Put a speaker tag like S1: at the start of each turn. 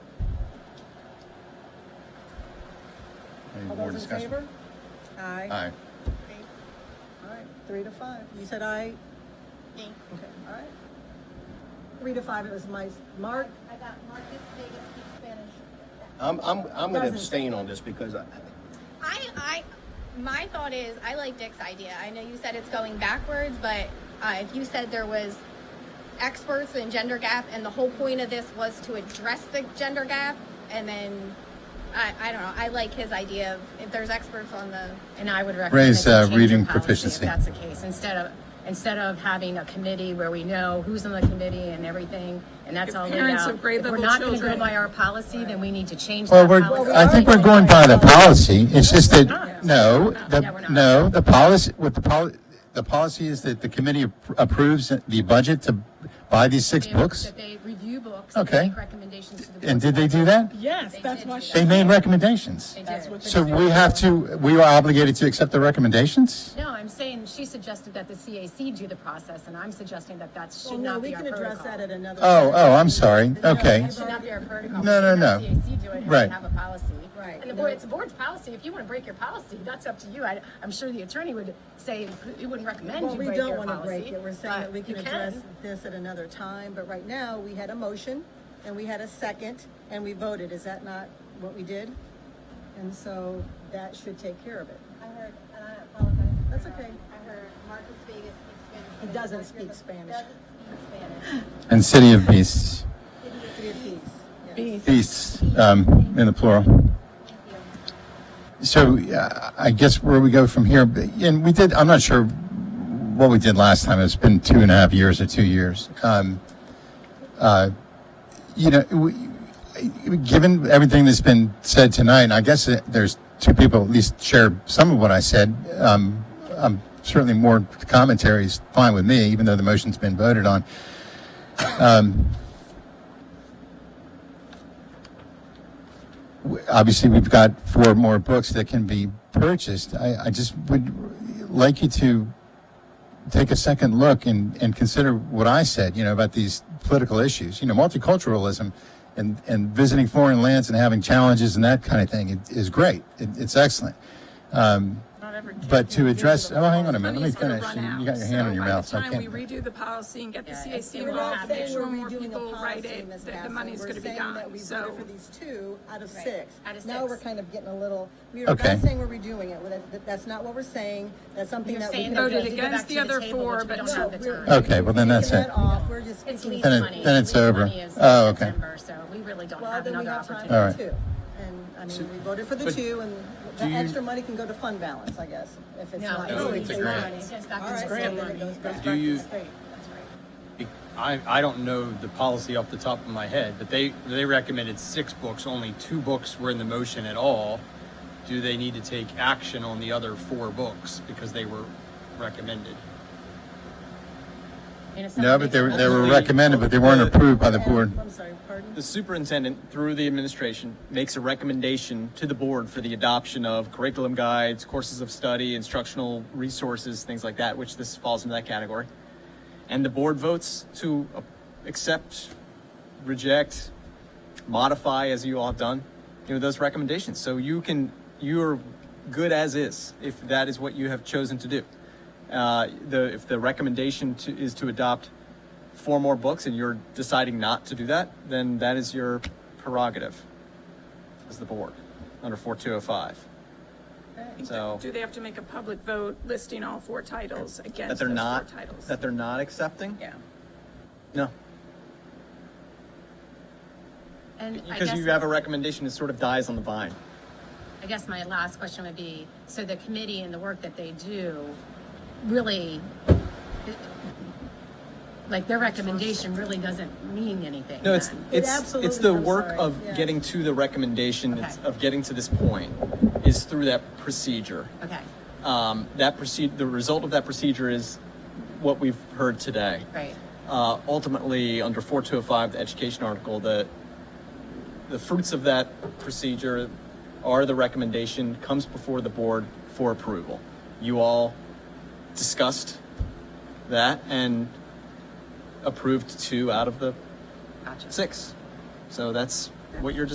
S1: Any
S2: All
S1: more
S2: those in
S1: discussion?
S2: favor? Aye.
S1: Aye.
S2: All right, three to five. You said aye?
S3: Thank
S2: Okay, all right. Three to five, it was my, Mark,
S3: I got Marcus Vegas speaks Spanish.
S1: I'm, I'm, I'm gonna
S2: Doesn't-
S1: abstain on this because I,
S3: I, I, my thought is, I like Dick's idea. I know you said it's going backwards, but uh, if you said there was experts in gender gap, and the whole point of this was to address the gender gap, and then I, I don't know. I like his idea of if there's experts on the.
S4: And I would recommend.
S1: Raise,
S4: that
S1: uh,
S4: you change your
S1: reading
S4: policy
S1: proficiency.
S4: If that's the case, instead of, instead of having a committee where we know who's on the committee and everything, and that's
S5: If
S4: all laid out.
S5: parents of grade level
S4: If we're not gonna
S5: children-
S4: go by our policy, then we need to change
S6: Well,
S4: that policy.
S2: we
S6: we're, I think we're going by the policy, it's just that, no,
S4: No, we're
S6: the,
S4: not.
S6: no, the policy, what the poli, the policy is that the committee appro- approves the budget to buy these six
S4: They-
S6: books?
S4: That they review books. and
S6: Okay.
S4: Make recommendations to the.
S6: And
S4: board.
S6: did they do that?
S2: yes, that's
S4: did
S2: why
S4: do
S2: she-
S6: They made recommendations.
S4: They
S2: That's
S4: did.
S2: what
S6: So we have to, we are obligated to accept the recommendations?
S4: No, I'm saying she suggested that the CAC do the process, and I'm suggesting that that
S2: Well,
S4: should
S2: no,
S4: not
S2: we
S4: be our
S2: can
S4: protocol.
S2: address that at another.
S6: Oh, oh, I'm sorry, okay.
S4: That should not be our protocol.
S6: No, no, no.
S4: Let the CAC do it, and we
S6: Right.
S4: have a policy.
S2: Right.
S4: And the board, it's the board's policy. If you want to break your policy, that's up to you. I, I'm sure the attorney would say, he wouldn't recommend
S2: Well,
S4: you
S2: we
S4: break
S2: don't
S4: your
S2: want to break
S4: policy.
S2: it. We're saying
S4: but
S2: that we can
S4: you
S2: address this at another time, but right now, we had a motion, and we had a second, and we voted. Is that not what we did? And so that should take care of it.
S3: I heard, and I apologize.
S2: That's okay.
S3: I heard Marcus Vegas speaks Spanish.
S2: He doesn't speak Spanish.
S3: Doesn't speak Spanish.
S6: And City of Beasts,
S2: Three apiece. Yes.
S6: beasts, um, in the plural.
S3: Thank you.
S6: So uh, I guess where we go from here, and we did, I'm not sure what we did last time. It's been two and a half years or two years. Um, uh, you know, we, given everything that's been said tonight, I guess that there's two people at least share some of what I said. Um, um, certainly more commentary is fine with me, even though the motion's been voted on. obviously we've got four more books that can be purchased. I, I just would like you to take a second look and, and consider what I said, you know, about these political issues. You know, multiculturalism and, and visiting foreign lands and having challenges and that kind of thing is- is great. It, it's excellent. Um,
S5: Not every kid
S6: But to
S5: can do
S6: address-
S5: the
S6: oh, hang on a
S5: policy.
S6: minute, let me
S5: Money's gonna
S6: finish.
S5: run
S6: You- you
S5: out.
S6: got your hand
S5: So
S6: on your
S5: by the
S6: mouth, so I
S5: time
S6: can't-
S5: we redo the policy and get the
S4: Yeah, it's
S5: CAC
S4: gonna
S2: We're
S4: Yeah,
S2: not
S5: involved, make
S2: saying we're
S5: sure more
S2: redoing
S5: people
S2: the
S5: write
S2: policy,
S5: it,
S2: Ms.
S5: that the
S2: Bassel.
S5: money's
S2: We're
S5: gonna be
S2: saying that
S5: gone,
S2: we voted
S5: so.
S2: for these two out of
S4: Right.
S2: six.
S4: Out of
S2: Now
S4: six.
S2: we're kind of getting a little, we're not
S6: Okay.
S2: saying we're redoing it, We're- that- that's not what we're saying, that's something
S4: You're
S2: that we
S4: saying
S2: can
S4: that we
S5: Voted
S4: need to go
S5: against
S4: back to
S5: the other
S4: table,
S5: four,
S4: which we
S5: but
S4: don't
S5: not
S4: have
S2: No,
S4: the
S2: we're-
S4: time.
S6: Okay, well, then that's
S2: Taking
S6: it.
S2: that off, we're just
S4: It's
S2: speaking-
S4: lease
S6: Then it-
S4: money.
S6: then it's
S4: Lease
S6: over.
S4: money is
S6: Oh, okay.
S4: September, So we really don't
S2: Well,
S4: have
S2: then we
S4: another
S2: have time
S4: opportunity.
S6: All
S2: for
S6: right.
S2: two. And, I mean, we voted for the
S1: But
S2: two, and the
S1: do you-
S2: extra money can go to fund balance, I guess, if it's
S4: No,
S2: not.
S4: it's
S1: No, it's
S4: lease
S1: a
S4: money.
S1: grant.
S4: It goes back
S2: All
S4: to
S2: right,
S4: the
S2: so then
S4: state.
S2: it goes back
S7: Do
S2: to the
S7: you-
S2: state.
S7: I, I don't know the policy off the top of my head, but they, they recommended six books, only two books were in the motion at all. Do they need to take action on the other four books because they were recommended?
S4: And if
S6: No,
S4: someone
S6: but
S4: makes
S6: they
S4: a
S6: were, they were
S7: Ultimately-
S6: recommended, but they weren't approved by the
S2: And-
S6: board.
S2: I'm sorry, pardon?
S7: The superintendent, through the administration, makes a recommendation to the board for the adoption of curriculum guides, courses of study, instructional resources, things like that, which this falls into that category. And the board votes to uh, accept, reject, modify, as you all have done, you know, those recommendations. So you can, you're good as is if that is what you have chosen to do. Uh, the, if the recommendation to, is to adopt four more books and you're deciding not to do that, then that is your prerogative as the board under 4205. So
S5: Do they have to make a public vote listing all four titles
S7: that
S5: against
S7: they're
S5: those four
S7: not,
S5: titles?
S7: that they're not accepting?
S5: Yeah.
S7: No.
S4: And I
S7: Because
S4: guess,
S7: you have a recommendation, it sort of dies on the vine.
S4: I guess my last question would be, so the committee and the work that they do really, like their recommendation really doesn't mean anything.
S7: No, it's
S4: then.
S7: it's
S2: absolutely-
S7: it's the
S2: I'm
S7: work
S2: sorry,
S7: of
S2: yeah.
S7: getting to the recommendation it's-
S4: Okay.
S7: of getting to this point is through that procedure.
S4: Okay,
S7: Um, that proceed the result of that procedure is what we've heard today.
S4: great.
S7: Uh, ultimately, under 4205, the education article, the the fruits of that procedure are the recommendation comes before the board for approval. You all discussed that and approved two out of the
S4: Gotcha.
S7: six. So that's what you're